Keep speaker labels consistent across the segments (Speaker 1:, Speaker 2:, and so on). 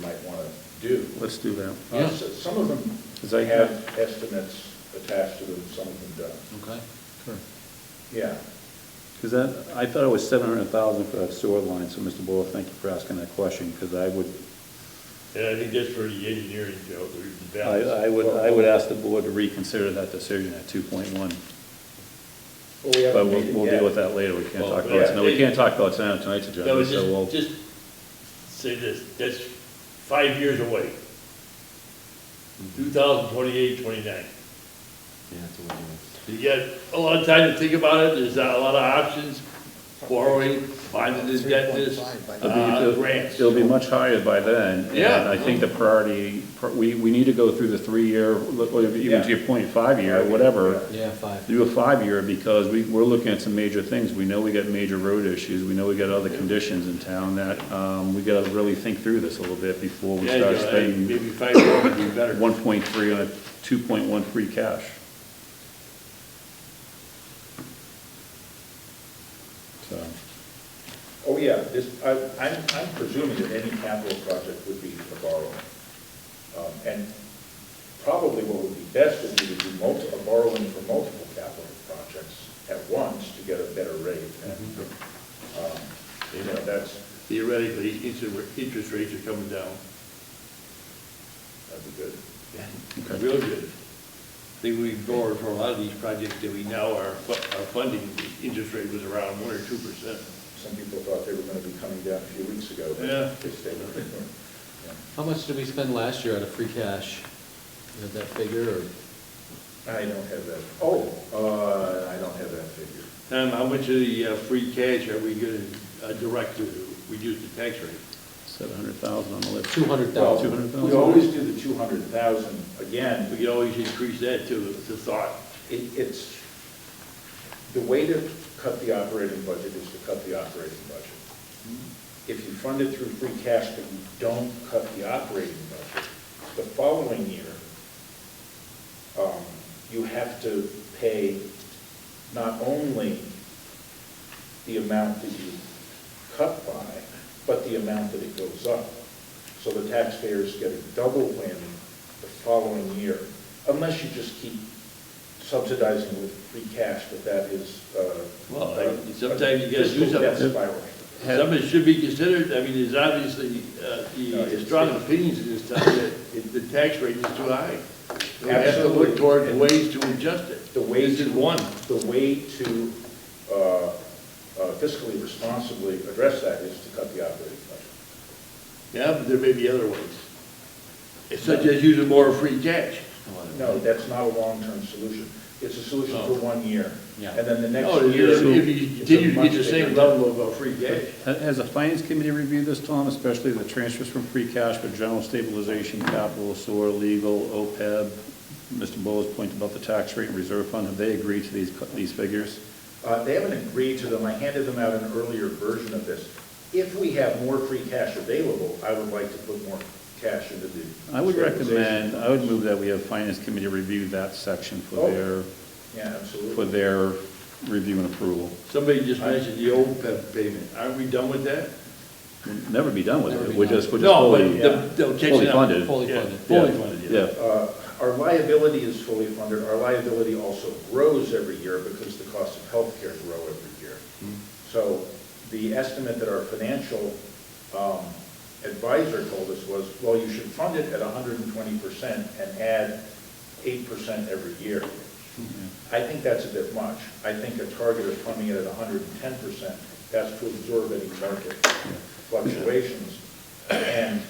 Speaker 1: might want to do.
Speaker 2: Let's do that.
Speaker 1: Uh,
Speaker 3: Yeah.
Speaker 1: s- Some of them
Speaker 2: Is that-
Speaker 1: have estimates attached to them, some of them don't.
Speaker 3: Okay.
Speaker 1: Yeah,
Speaker 2: Because that, I thought it was seven hundred thousand for that sewer line, so Mr. Boyle, thank you for asking that question, because I would,
Speaker 4: And I think that's for the engineering job, we can balance.
Speaker 2: I, I would, I would ask the board to reconsider that decision at two point one.
Speaker 1: well, we
Speaker 2: But
Speaker 1: haven't
Speaker 2: we'll,
Speaker 1: made it
Speaker 2: we'll deal with
Speaker 1: yet.
Speaker 2: that later, we can't
Speaker 3: Well,
Speaker 2: talk about
Speaker 1: yeah.
Speaker 2: it, tonight. we can't talk about it tonight, tonight's
Speaker 4: No,
Speaker 2: agenda,
Speaker 4: it's
Speaker 2: so we'll,
Speaker 4: just, just say this, that's five years away.
Speaker 2: Mm-hmm.
Speaker 4: 2028, 29.
Speaker 3: Yeah, that's what we're doing.
Speaker 4: You got a lot of time to think about it, there's a lot of options, borrowing, finding this, debt, this,
Speaker 5: 3.5 by
Speaker 2: It'll be-
Speaker 4: uh,
Speaker 2: it'll-
Speaker 4: grants.
Speaker 2: It'll be much higher by then. And
Speaker 4: Yeah.
Speaker 2: I think the priority, we, we need to go through the three-year, look, or even to your point, five-year, whatever.
Speaker 3: Yeah, five.
Speaker 2: Do a five-year because we, we're looking at some major things. We know we got major road issues. We know we got other conditions in town that, um, we gotta really think through this a little bit before we
Speaker 4: Yeah,
Speaker 2: start
Speaker 4: you know,
Speaker 2: spending
Speaker 4: Maybe five years would be better.
Speaker 2: one point three on a two point one free cash. So,
Speaker 1: Oh, yeah, this, I, I'm, I'm presuming that any capital project would be a borrowing. Um, And probably what would be best would be to do multi, a borrowing for multiple capital projects at once to get a better rate. And,
Speaker 2: Mm-hmm.
Speaker 1: um, You know, that's,
Speaker 4: Theoretically, interest interest rates are coming down.
Speaker 1: that'd be good.
Speaker 2: Okay.
Speaker 4: Real good. I think we borrowed for a lot of these projects that we now are, fu- are funding, the interest rate was around one or two percent.
Speaker 1: Some people thought they were gonna be coming down a few weeks ago. but
Speaker 4: Yeah.
Speaker 1: They stayed.
Speaker 3: How much did we spend last year out of free cash? You have that figure, or?
Speaker 1: I don't have that, oh, uh, I don't have that figure.
Speaker 4: Tom, how much of the uh, free cash are we gonna uh, direct to reduce the tax rate?
Speaker 2: seven hundred thousand on the list.
Speaker 3: Two hundred
Speaker 1: Well,
Speaker 3: thousand.
Speaker 1: We always do the two hundred thousand, again,
Speaker 4: We could always increase that to, to thought.
Speaker 1: it, it's, the way to cut the operating budget is to cut the operating budget. If you fund it through free cash, but you don't cut the operating budget, the following year, um, you have to pay not only the amount that you cut by, but the amount that it goes up. So the taxpayers get a double whammy the following year, unless you just keep subsidizing with free cash, but that is, uh.
Speaker 4: Well,
Speaker 1: uh,
Speaker 4: I- sometimes you gotta do
Speaker 1: fiscal death
Speaker 4: something.
Speaker 1: spiral.
Speaker 4: Something should be considered, I mean, there's obviously, uh,
Speaker 1: No, it's-
Speaker 4: the strong opinions in this town that it- the tax rate is too high. We have to
Speaker 1: Absolutely.
Speaker 4: look toward ways to adjust it.
Speaker 1: The way
Speaker 4: This is
Speaker 1: to-
Speaker 4: one.
Speaker 1: The way to, uh, uh, fiscally responsibly address that is to cut the operating budget.
Speaker 4: Yeah, but there may be other ways, such as using more free cash.
Speaker 1: No, that's not a long-term solution. It's a solution for
Speaker 4: Oh.
Speaker 1: one year.
Speaker 3: Yeah.
Speaker 1: And then the next
Speaker 4: No,
Speaker 1: year.
Speaker 4: Oh, if if you
Speaker 1: it's a
Speaker 4: continue to
Speaker 1: much
Speaker 4: get the same
Speaker 1: bigger-
Speaker 4: level of uh, free cash.
Speaker 2: Ha- Has the finance committee reviewed this, Tom, especially the transfers from free cash for general stabilization, capital, sewer, legal, E OPEB? Mr. Bullock's point about the tax rate and reserve fund, have they agreed to these, cu- these figures?
Speaker 1: Uh, They haven't agreed to them. I handed them out an earlier version of this. If we have more free cash available, I would like to put more cash into the.
Speaker 2: I would
Speaker 1: stabilization.
Speaker 2: recommend, I would move that we have finance committee review that section for
Speaker 1: Oh.
Speaker 2: their,
Speaker 1: Yeah,
Speaker 2: for
Speaker 1: absolutely.
Speaker 2: their review and approval.
Speaker 4: Somebody just mentioned the OPEB payment. Aren't we done with that?
Speaker 2: We'll Never be done with
Speaker 3: Never
Speaker 2: it,
Speaker 3: be
Speaker 2: we're
Speaker 3: done.
Speaker 2: just, we're just
Speaker 4: No, but
Speaker 2: fully,
Speaker 4: the- they'll catch
Speaker 2: fully
Speaker 4: it up.
Speaker 2: funded.
Speaker 3: Fully
Speaker 4: Yeah,
Speaker 3: funded.
Speaker 4: Fully funded, yeah.
Speaker 2: Yeah,
Speaker 1: Uh, Our liability is fully funded. Our liability also grows every year because the cost of healthcare grow every year. So the estimate that our financial um, advisor told us was, well, you should fund it at 120% and add 8% every year. I think that's a bit much. I think a target of funding it at 110%, that's to absorb any market fluctuations, and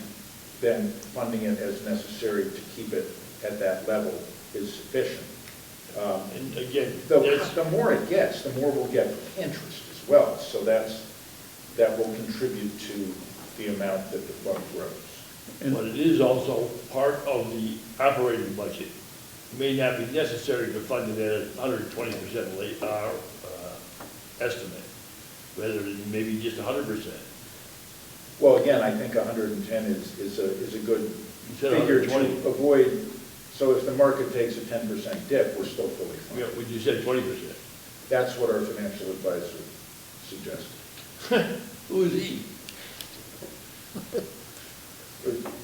Speaker 1: then funding it as necessary to keep it at that level is sufficient. Um,
Speaker 4: And again,
Speaker 1: the,
Speaker 4: that's,
Speaker 1: the more it gets, the more we'll get interest as well, so that's, that will contribute to the amount that the fund grows.
Speaker 4: but it is also part of the operating budget. It May not be necessary to fund it at hundred and twenty percent late, uh, uh, estimate, rather than maybe just hundred percent.
Speaker 1: Well, again, I think hundred and ten is, is a, is a good
Speaker 4: You said
Speaker 1: figure to
Speaker 4: 120.
Speaker 1: avoid, so if the market takes a ten percent dip, we're still fully funded.
Speaker 4: Would you said twenty percent?
Speaker 1: That's what our financial advisor suggested.
Speaker 4: Who's he?
Speaker 1: Or-